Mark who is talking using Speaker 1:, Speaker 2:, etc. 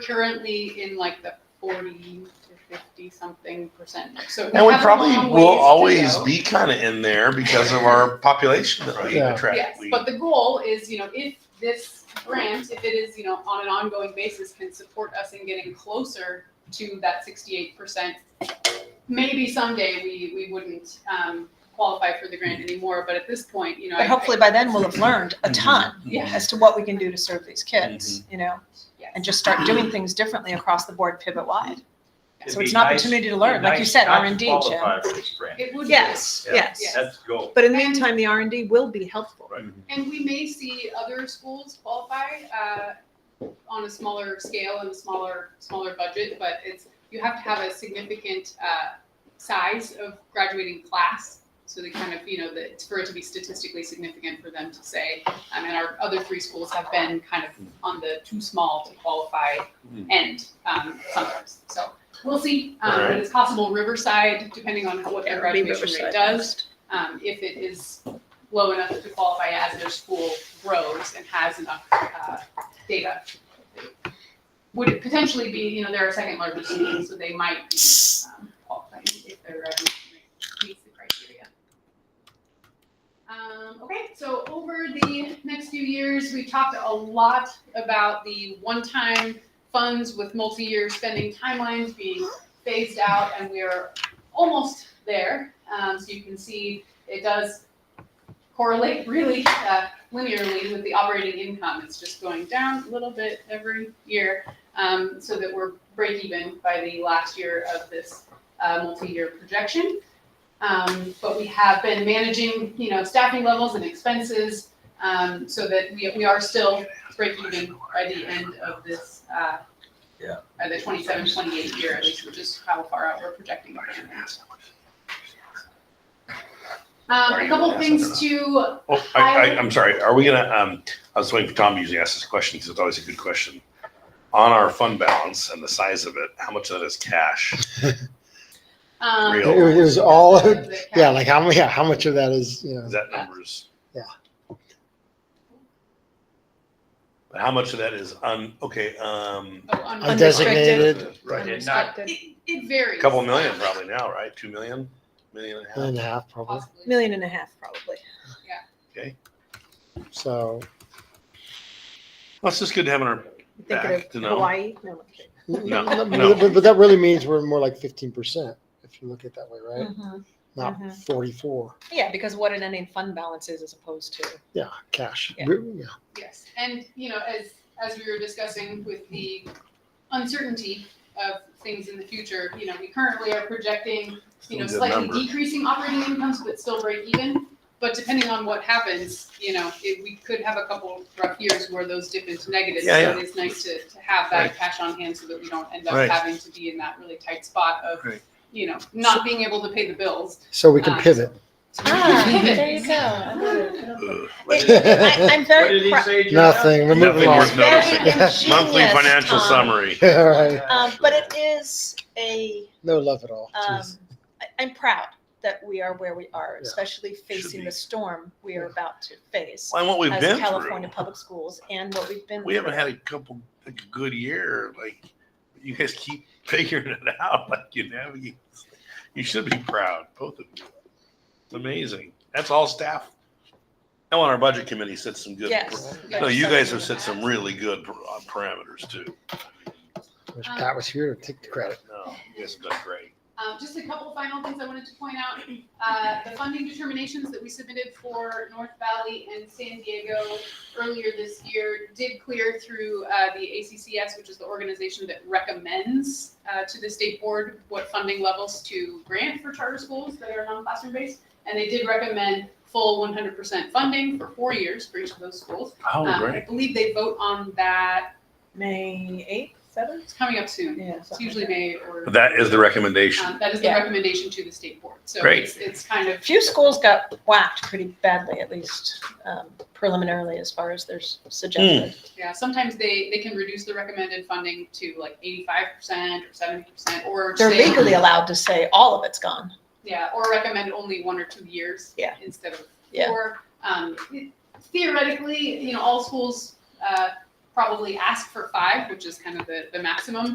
Speaker 1: currently in like the forty to fifty something percent. So
Speaker 2: And we
Speaker 1: have a
Speaker 2: probably
Speaker 1: long ways
Speaker 2: will
Speaker 1: to
Speaker 2: always
Speaker 1: go.
Speaker 2: be kind of in there because of our population that we
Speaker 3: Yeah.
Speaker 2: attract.
Speaker 1: Yes,
Speaker 2: We-
Speaker 1: but the goal is, you know, if this grant, if it is, you know, on an ongoing basis, can support us in getting closer to that sixty-eight percent. Maybe someday we, we wouldn't, um, qualify for the grant anymore, but at this point, you know. I-
Speaker 4: But
Speaker 1: I-
Speaker 4: hopefully by then we'll have learned
Speaker 2: Mm-hmm.
Speaker 4: a ton
Speaker 1: Yeah.
Speaker 4: as to what we can do to serve these kids, you know,
Speaker 1: yes.
Speaker 4: and just start doing things differently across the board, pivot wide.
Speaker 5: It'd
Speaker 4: So
Speaker 5: be
Speaker 4: it's an
Speaker 5: nice-
Speaker 4: opportunity to learn, like you said, R and D,
Speaker 5: Nice
Speaker 4: Jim.
Speaker 5: not to qualify for this grant.
Speaker 1: It would. be-
Speaker 4: Yes,
Speaker 5: Yeah.
Speaker 4: yes.
Speaker 5: That's the goal.
Speaker 4: But in the meantime, the R and D will be helpful.
Speaker 5: Right.
Speaker 1: And we may see other schools qualify, uh, on a smaller scale and a smaller, smaller budget, but it's, you have to have a significant, uh, size of graduating class. So they kind of, you know, that it's for it to be statistically significant for them to say, I mean, our other three schools have been kind of on the too small to qualify
Speaker 2: Mm.
Speaker 1: end, um, sometimes, so. We'll see, um,
Speaker 2: Alright.
Speaker 1: it's possible Riverside, depending on what their
Speaker 4: Yeah, it'll be
Speaker 1: graduation rate
Speaker 4: Riverside
Speaker 1: does um, if it is low enough to qualify as their school grows and has enough, uh, data. Would it potentially be, you know, they're a second largest school, so they might be, um, qualifying if their revenue rate meets the criteria. Um, okay, so over the next few years, we talked a lot about the one-time funds with multi-year spending timelines being phased out, and we are almost there. Um, so you can see it does correlate really uh, linearly with the operating income. It's just going down a little bit every year um, so that we're break even by the last year of this uh, multi-year projection. Um, but we have been managing, you know, staffing levels and expenses um, so that we, we are still break even by the end of this uh,
Speaker 5: Yeah.
Speaker 1: by the 27, 28 year at least, which is how far out we're projecting. our plan. Um, a couple things to,
Speaker 2: Oh, I, I, I'm sorry. Are we gonna, um, I was waiting for Tom to usually ask this question because it's always a good question. On our fund balance and the size of it, how much of that is cash?
Speaker 1: um.
Speaker 2: Real.
Speaker 3: It was all,
Speaker 1: the
Speaker 3: yeah,
Speaker 1: cash.
Speaker 3: like how, yeah, how much of that is, you know,
Speaker 2: Is that numbers?
Speaker 3: Yeah.
Speaker 2: But how much of that is un, okay, um,
Speaker 1: Oh, un-
Speaker 4: Unrestricted.
Speaker 3: undesignated,
Speaker 2: right,
Speaker 5: And not,
Speaker 1: It, it varies.
Speaker 2: a couple million probably now, right? Two million, million and a half?
Speaker 3: million and a half probably.
Speaker 1: Possibly.
Speaker 4: Million and a half, probably.
Speaker 3: So,
Speaker 2: That's just good to have in our,
Speaker 4: You Think
Speaker 2: Back to
Speaker 4: of
Speaker 2: no.
Speaker 4: Hawaii. No, I'm kidding.
Speaker 2: No,
Speaker 3: but,
Speaker 2: no.
Speaker 3: but- but that really means we're more like fifteen percent if you look at it that way, right?
Speaker 4: Mhm.
Speaker 3: Not
Speaker 4: Mhm.
Speaker 3: forty-four.
Speaker 4: Yeah, because what an ending fund balance is as opposed to.
Speaker 3: Yeah, cash.
Speaker 4: Yeah.
Speaker 3: We- yeah.
Speaker 1: Yes, and you know, as as we were discussing with the uncertainty of things in the future, you know, we currently are projecting, you know,
Speaker 2: Still a good
Speaker 1: slightly
Speaker 2: number.
Speaker 1: decreasing operating incomes, but still break even. But depending on what happens, you know, it, we could have a couple rough years where those dip into negatives.
Speaker 2: Yeah, yeah.
Speaker 1: So it's nice to, to have that
Speaker 2: Right.
Speaker 1: cash on hand so that we don't end up
Speaker 2: Right.
Speaker 1: having to be in that really tight spot of,
Speaker 2: Right.
Speaker 1: you know, not being able to pay the bills.
Speaker 3: So we can
Speaker 1: Ah.
Speaker 3: pivot.
Speaker 1: So we can
Speaker 4: Ah,
Speaker 1: pivot.
Speaker 4: there you go.
Speaker 2: ugh,
Speaker 4: It- I- I'm
Speaker 5: what
Speaker 4: very
Speaker 5: did he
Speaker 4: proud.
Speaker 5: say, Jim?
Speaker 3: Nothing, we're
Speaker 2: Nothing
Speaker 3: moving on.
Speaker 2: worth noticing. Monthly
Speaker 4: Ingenious,
Speaker 2: financial
Speaker 4: Tom.
Speaker 2: summary.
Speaker 3: All right,
Speaker 4: Um, but it is a,
Speaker 3: no love at all.
Speaker 4: um,
Speaker 3: Jeez.
Speaker 4: I, I'm proud that we are where we are,
Speaker 3: Yeah.
Speaker 4: especially facing
Speaker 2: be.
Speaker 4: the storm we are about to face
Speaker 2: And what we've
Speaker 4: as
Speaker 2: been
Speaker 4: California
Speaker 2: through.
Speaker 4: public schools and what we've been.
Speaker 2: We haven't
Speaker 4: through.
Speaker 2: had a couple, like a good year, like, you guys keep figuring it out, like you navigate. You should be proud, both of you. It's amazing. That's all staff. And on our budget committee said some good,
Speaker 4: Yes.
Speaker 2: no,
Speaker 4: yes,
Speaker 2: you
Speaker 4: so
Speaker 2: guys
Speaker 4: we
Speaker 2: have said some really good par- uh, parameters too.
Speaker 3: Wish Pat was here to take the credit.
Speaker 2: No, you guys have done great.
Speaker 1: Um, just a couple final things I wanted to point out. Uh, the funding determinations that we submitted for North Valley and San Diego earlier this year did clear through uh, the ACCS, which is the organization that recommends uh, to the state board what funding levels to grant for charter schools that are non-classroom based. And they did recommend full 100% funding for four years for each of those schools.
Speaker 2: Oh,
Speaker 1: Um, I believe they vote on that.
Speaker 4: May eighth, seventh?
Speaker 1: It's coming up soon.
Speaker 4: Yeah.
Speaker 1: It's usually May or.
Speaker 2: That is the recommendation.
Speaker 1: Um, That is the
Speaker 4: Yeah.
Speaker 1: recommendation to the state board. So
Speaker 2: Great.
Speaker 1: it's, it's kind of,
Speaker 4: A few schools got whacked pretty badly, at least um, preliminarily, as far as there's suggested.
Speaker 2: Hmm.
Speaker 1: yeah, sometimes they, they can reduce the recommended funding to like eighty-five percent or seventy percent or
Speaker 4: They're
Speaker 1: say-
Speaker 4: legally allowed to say all of it's gone.
Speaker 1: Yeah, or recommend only one or two years.
Speaker 4: Yeah.
Speaker 1: Instead of
Speaker 4: Yeah.
Speaker 1: four. Um, theoretically, you know, all schools, uh, probably ask for five, which is kind of the, the maximum.